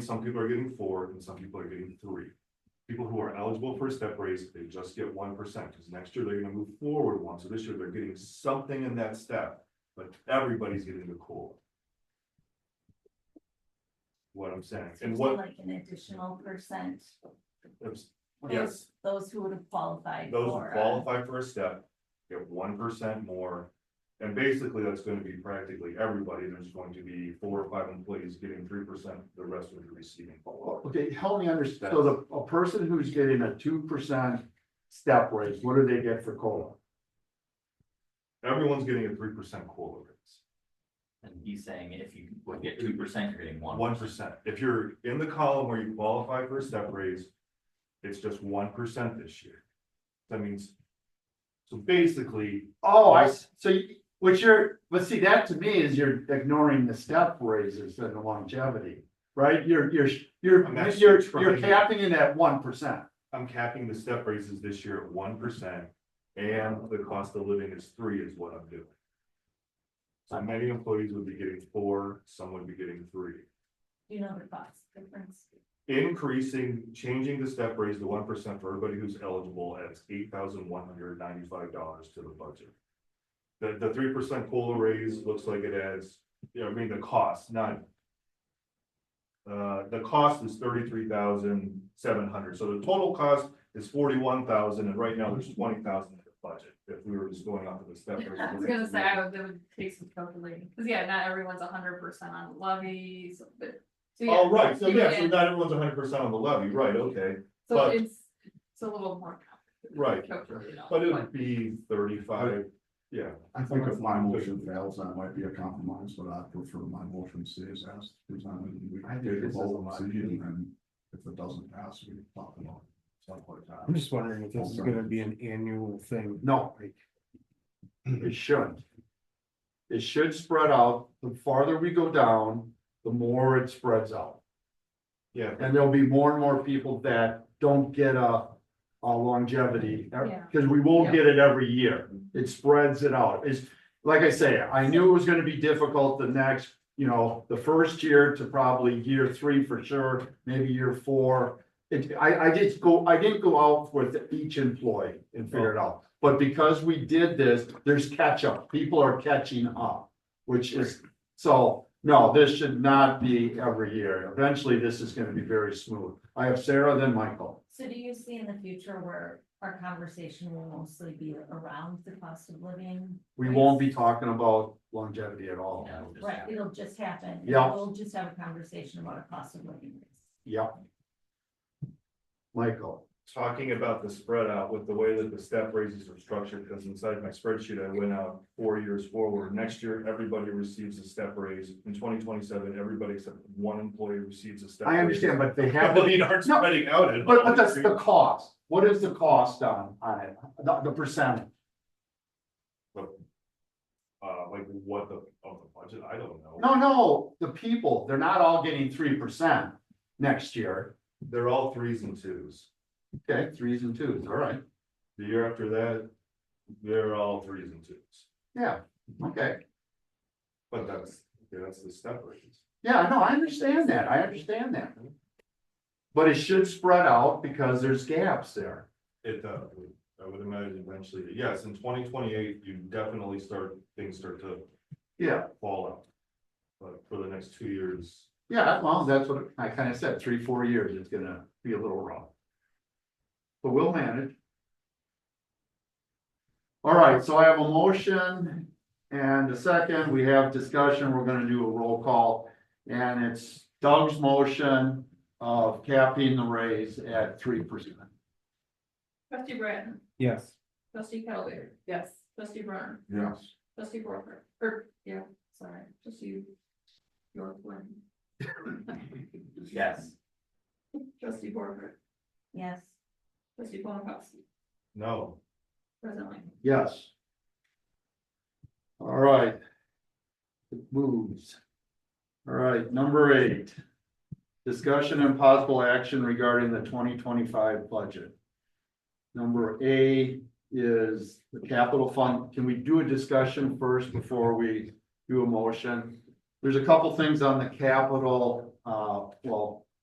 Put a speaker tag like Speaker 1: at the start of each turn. Speaker 1: Some people are getting four and some people are getting three. People who are eligible for a step raise, they just get one percent, because next year they're gonna move forward one, so this year they're getting something in that step. But everybody's getting the COLA. What I'm saying, and
Speaker 2: So
Speaker 1: what,
Speaker 2: Like an additional percent,
Speaker 1: yes,
Speaker 2: those who would have qualified
Speaker 1: those who
Speaker 2: for. uh,
Speaker 1: qualify for a step get one percent more. And basically, that's gonna be practically everybody, there's going to be four or five employees getting three percent, the rest would be receiving COLA.
Speaker 3: Okay, help me understand. So the, a person who's getting a two percent step raise, what do they get for COLA?
Speaker 1: Everyone's getting a three percent COLA raise.
Speaker 4: And he's saying if you would get two percent, you're getting one.
Speaker 1: One percent. If you're in the column where you qualify for a step raise, it's just one percent this year. That means. So basically,
Speaker 3: Oh, I, s- so you, what you're, but see, that to me is you're ignoring the step raises and the longevity. Right? You're, you're,
Speaker 1: I'm
Speaker 3: you're,
Speaker 1: actually
Speaker 3: you're,
Speaker 1: trying.
Speaker 3: you're capping it at one percent.
Speaker 1: I'm capping the step raises this year at one percent. And the cost of living is three is what I'm doing. So many employees would be getting four, some would be getting three.
Speaker 2: You know the cost difference.
Speaker 1: Increasing, changing the step raise to one percent for everybody who's eligible adds eight thousand one hundred ninety-five dollars to the budget. The, the three percent COLA raise looks like it adds, you know, I mean, the cost, not. Uh, the cost is thirty-three thousand seven hundred, so the total cost is forty-one thousand, and right now there's twenty thousand in the budget, if we were just going off of the step. raise.
Speaker 5: I was gonna say, I would, it would take some calculating, cause yeah, not everyone's hundred percent on levies, but. so yeah,
Speaker 1: Oh, right, so yeah, so
Speaker 5: yeah.
Speaker 1: not everyone's hundred percent on the levy, right, okay,
Speaker 5: So
Speaker 1: but-
Speaker 5: it's, it's a little more complicated.
Speaker 1: Right,
Speaker 5: calculated out,
Speaker 1: but it would be thirty-five, yeah.
Speaker 6: I think if my motion fails, that might be a compromise, but I prefer my motion stays as presented. and we
Speaker 3: I think
Speaker 6: take a
Speaker 3: this is a
Speaker 6: vote and
Speaker 3: lot
Speaker 6: see,
Speaker 3: easier.
Speaker 6: and then If it doesn't pass, we talk about it, stuff like that.
Speaker 7: I'm just wondering if this is
Speaker 6: Okay.
Speaker 7: gonna be an annual thing.
Speaker 3: No, it- it shouldn't. It should spread out. The farther we go down, the more it spreads out.
Speaker 1: Yeah,
Speaker 3: And there'll be more and more people that don't get a, a uh, longevity,
Speaker 5: Yeah.
Speaker 3: because we won't
Speaker 5: Yeah.
Speaker 3: get it every year. It spreads it out. It's, like I say, I knew it was gonna be difficult the next, you know, the first year to probably year three for sure, maybe year four. It, I, I did go, I didn't go out with each employee and figure it out. But because we did this, there's catch up. People are catching up, which is so, no, this should not be every year. Eventually, this is gonna be very smooth. I have Sarah, then Michael.
Speaker 2: So do you see in the future where our conversation will mostly be around the cost of living?
Speaker 3: We won't be talking about longevity at all.
Speaker 4: Yeah, we'll just-
Speaker 2: Right, it'll just happen.
Speaker 3: Yeah.
Speaker 2: We'll just have a conversation about a cost of living. raise.
Speaker 3: Yep. Michael,
Speaker 1: talking about the spread out with the way that the step raises are structured, because inside my spreadsheet, I went out four years forward. Next year, everybody receives a step raise. In twenty twenty-seven, everybody except one employee receives a step.
Speaker 3: I
Speaker 1: raise.
Speaker 3: understand, but they have, to-
Speaker 1: Companies aren't
Speaker 3: No,
Speaker 1: spreading out. at
Speaker 3: but,
Speaker 1: all.
Speaker 3: but that's the cost. What is the cost on, on it? The, the percentage?
Speaker 1: Uh, like what the, of the budget, I don't know.
Speaker 3: No, no, the people, they're not all getting three percent next year.
Speaker 1: They're all threes and twos.
Speaker 3: Okay, threes and twos, all right.
Speaker 1: The year after that, they're all threes and twos.
Speaker 3: Yeah, okay.
Speaker 1: But that's, yeah, that's the step raise.
Speaker 3: Yeah, no, I understand that, I understand that. But it should spread out because there's gaps there.
Speaker 1: It does, I would imagine eventually, yes, in twenty twenty-eight, you definitely start, things start to
Speaker 3: Yeah.
Speaker 1: fall out. But for the next two years,
Speaker 3: Yeah, well, that's what I kinda said, three, four years, it's gonna be a little rough. But we'll manage. All right, so I have a motion and a second, we have discussion, we're gonna do a roll call. And it's Doug's motion of capping the raise at three percent.
Speaker 5: Trustee Bratton,
Speaker 7: Yes.
Speaker 5: trustee Calvary, yes, trustee Brunner,
Speaker 6: Yes,
Speaker 5: trustee Borger, or, yeah, sorry, trustee. Your one,
Speaker 4: Yes,
Speaker 5: trustee Borger,
Speaker 2: Yes,
Speaker 5: trustee Polanowski,
Speaker 1: no,
Speaker 5: presently.
Speaker 3: Yes. All right. It moves. All right, number eight. Discussion and possible action regarding the twenty twenty-five budget. Number A is the capital fund. Can we do a discussion first before we do a motion? There's a couple things on the capital, uh, well,